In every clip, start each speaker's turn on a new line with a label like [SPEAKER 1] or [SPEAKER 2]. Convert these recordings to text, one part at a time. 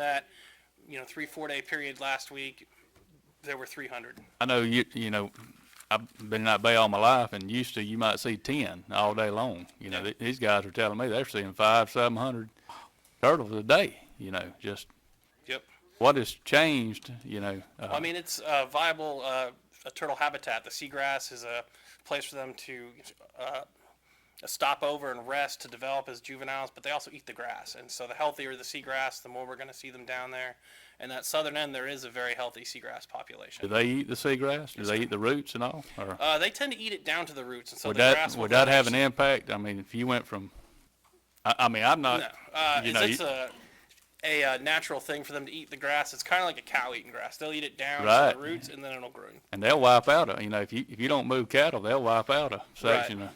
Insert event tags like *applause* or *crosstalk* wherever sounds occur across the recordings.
[SPEAKER 1] that, you know, three, four day period last week, there were three hundred.
[SPEAKER 2] I know you, you know, I've been in that bay all my life and used to, you might see ten all day long. You know,
[SPEAKER 1] Yeah.
[SPEAKER 2] th- these guys are telling me they're seeing five, seven hundred turtles a day, you know, just
[SPEAKER 1] Yep.
[SPEAKER 2] what has changed, you know?
[SPEAKER 1] Well, I
[SPEAKER 2] uh,
[SPEAKER 1] mean, it's a viable uh, a turtle habitat. The seagrass is a place for them to uh, stop over and rest to develop as juveniles, but they also eat the grass. And so the healthier the seagrass, the more we're going to see them down there. And that southern end, there is a very healthy seagrass
[SPEAKER 2] Do
[SPEAKER 1] population.
[SPEAKER 2] they eat the seagrass? Do they eat the roots and all? Or
[SPEAKER 1] Uh, they tend to eat it down to the roots, and so
[SPEAKER 2] would
[SPEAKER 1] the grass
[SPEAKER 2] that,
[SPEAKER 1] will
[SPEAKER 2] would that have an
[SPEAKER 1] nourish-
[SPEAKER 2] impact? I mean, if you went from, I, I mean, I'm
[SPEAKER 1] No,
[SPEAKER 2] not,
[SPEAKER 1] uh,
[SPEAKER 2] you
[SPEAKER 1] it's,
[SPEAKER 2] know,
[SPEAKER 1] it's
[SPEAKER 2] you-
[SPEAKER 1] a a uh, natural thing for them to eat the grass. It's kind of like a cow eating grass. They'll eat it down
[SPEAKER 2] Right.
[SPEAKER 1] to the roots, and then it'll grow.
[SPEAKER 2] and they'll wipe out, a- you know, if you, if you don't move cattle, they'll wipe out a section of,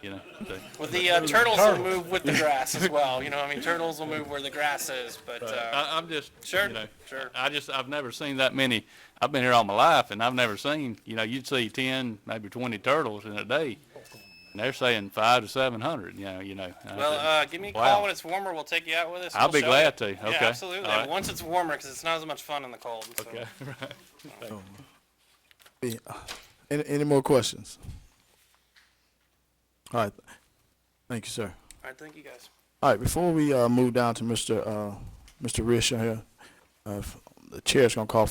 [SPEAKER 2] you know, they-
[SPEAKER 1] Well, the uh, turtles will move with the grass *laughs* as well. You know, I mean, turtles will move where the grass is, but uh,
[SPEAKER 2] I, I'm just,
[SPEAKER 1] Sure,
[SPEAKER 2] you know,
[SPEAKER 1] sure.
[SPEAKER 2] I just, I've never seen that many. I've been here all my life, and I've never seen, you know, you'd see ten, maybe twenty turtles in a day, and they're saying five to seven hundred. You know, you know. and I
[SPEAKER 1] well,
[SPEAKER 2] said,
[SPEAKER 1] uh, give me a call
[SPEAKER 2] Wow.
[SPEAKER 1] when it's warmer. We'll take you out with us.
[SPEAKER 2] I'll
[SPEAKER 1] we'll
[SPEAKER 2] be
[SPEAKER 1] show
[SPEAKER 2] glad
[SPEAKER 1] you.
[SPEAKER 2] to.
[SPEAKER 1] Yeah,
[SPEAKER 2] Okay.
[SPEAKER 1] absolutely.
[SPEAKER 2] All right.
[SPEAKER 1] Once it's warmer, because it's not as much fun in the cold. So.
[SPEAKER 2] okay, right.
[SPEAKER 3] Yeah. Any, any more questions? All right. Thank you, sir.
[SPEAKER 1] All right, thank you guys.
[SPEAKER 3] All right. Before we uh, move down to Mr. Uh, Mr. Rish here, uh, if- the chair's gonna call for